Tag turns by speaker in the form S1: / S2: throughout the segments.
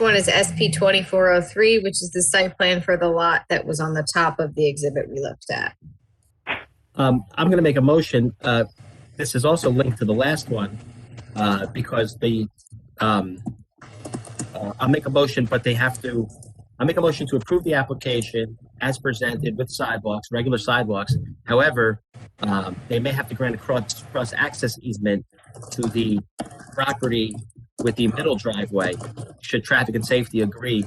S1: One is SP 2403, which is the site plan for the lot that was on the top of the exhibit we looked at.
S2: Um, I'm going to make a motion. Uh, this is also linked to the last one uh, because the um, uh, I'll make a motion, but they have to. I'll make a motion to approve the application as presented with sidewalks, regular sidewalks. However, um, they may have to grant a cross cross access easement to the property with the middle driveway. Should traffic and safety agree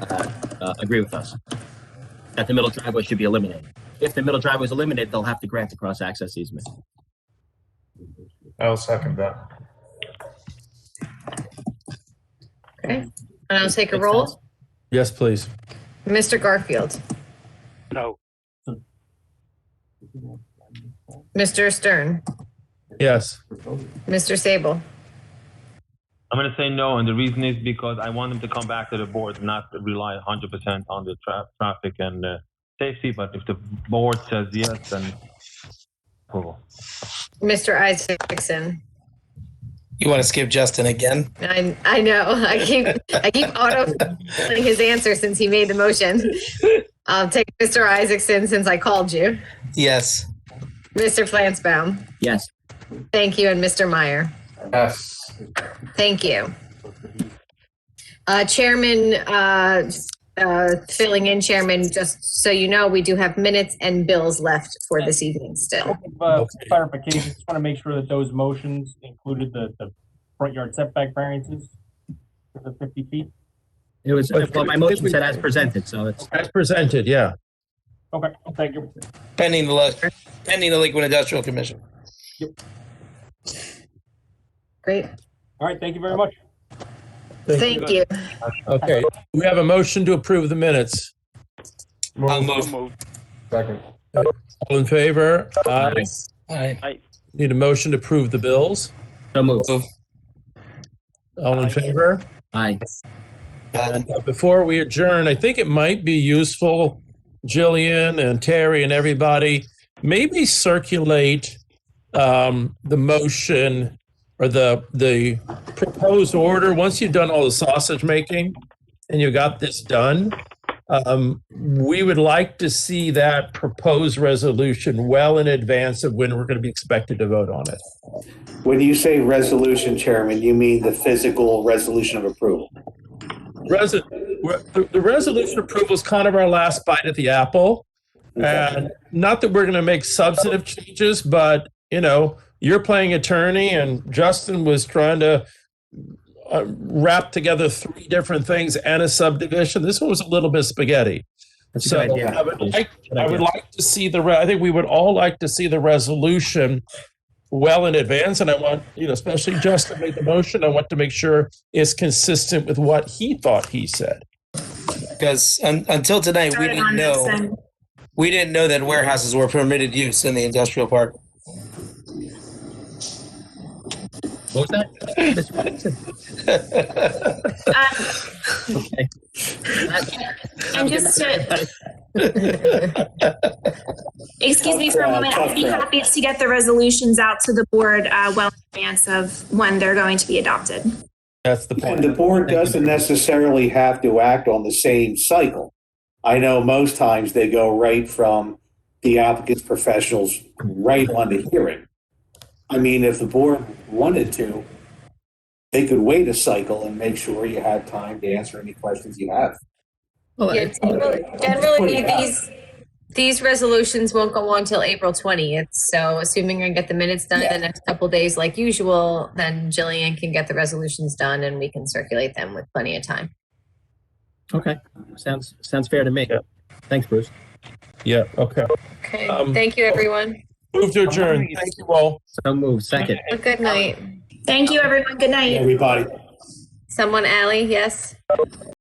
S2: uh, uh, agree with us that the middle driveway should be eliminated? if the middle driveway is eliminated, they'll have to grant the cross access easement.
S3: I'll second that.
S1: And I'll take a
S2: Makes
S1: roll.
S2: sense.
S4: Yes, please.
S1: Mr. Garfield,
S5: No.
S1: Mr. Stern,
S4: Yes.
S1: Mr. Sable,
S6: I'm gonna say no, and the reason is because I want them to come back to the board, not to rely 100% on the tra- traffic and uh, safety. But if the board says yes, then approval.
S1: Mr. Isaacson.
S7: You want to skip Justin again?
S1: I, I know, I keep, I keep auto filling his answer since he made the motion. I'll take Mr. Isaacson since I called you.
S7: Yes.
S1: Mr. Flansbaum,
S2: Yes,
S1: thank you, and Mr. Meyer.
S3: Yes.
S1: Thank you. Uh, Chairman, uh, uh, filling in chairman, just so you know, we do have minutes and bills left for this evening still.
S8: Uh, clarification, just want to make sure that those motions included the, the front yard setback variances for the fifty feet.
S2: it was,
S4: But-
S2: well, my motion said as presented, so it's,
S4: As presented, yeah.
S8: Okay, thank you.
S7: Pending the, lo- pending the Lakewood Industrial Commission.
S1: Great,
S8: All right, thank you very much.
S1: thank you.
S4: Okay, we have a motion to approve the minutes.
S7: I'll
S3: Move.
S7: move.
S5: Moved.
S3: Second.
S4: All in favor? Aye.
S7: All right.
S4: Need a motion to approve the bills?
S2: so move.
S4: All in favor?
S2: Aye.
S4: And uh, before we adjourn, I think it might be useful, Jillian and Terry and everybody, maybe circulate um, the motion or the the proposed order. Once you've done all the sausage making and you got this done, um, we would like to see that proposed resolution well in advance of when we're going to be expected to vote on it.
S9: When you say resolution, Chairman, you mean the physical resolution of approval?
S4: Resi- we're- the, the resolution approval is kind of our last bite at the apple. And not that we're going to make substantive changes, but, you know, you're playing attorney and Justin was trying to uh, wrap together three different things and a subdivision. This one was a little bit spaghetti.
S2: That's a
S4: So
S2: good idea.
S4: I would like,
S2: Good
S4: I
S2: idea.
S4: would like to see the, re- I think we would all like to see the resolution well in advance. And I want, you know, especially Justin made the motion. I want to make sure it's consistent with what he thought he said.
S7: Because un- until tonight, we didn't know. We didn't know that warehouses were permitted use in the industrial park.
S2: What was that? Mr. Robinson? Okay.
S10: Um, And just to, excuse me for a moment, I'd be happy to get the resolutions out to the board uh, well in advance of when they're going to be adopted.
S4: That's the
S9: And the
S4: point.
S9: board doesn't necessarily have to act on the same cycle. I know most times they go right from the applicant's professionals right on to hearing. I mean, if the board wanted to, they could wait a cycle and make sure you have time to answer any questions you have.
S2: Well,
S1: Yeah, generally- Generally, these, these resolutions won't go on till April 20th. So assuming I get the minutes done the next couple days like usual, then Jillian can get the resolutions done and we can circulate them with plenty of time.
S2: Okay, sounds, sounds fair to me.
S4: Yeah.
S2: Thanks, Bruce.
S4: Yeah, okay.
S1: Okay,
S4: Um,
S1: thank you, everyone.
S4: Move to adjourn. Thank you all.
S2: So move, second.
S1: Well, Good night.
S10: Thank you, everyone. Good night.
S9: Everybody.
S1: Someone, Ally, yes?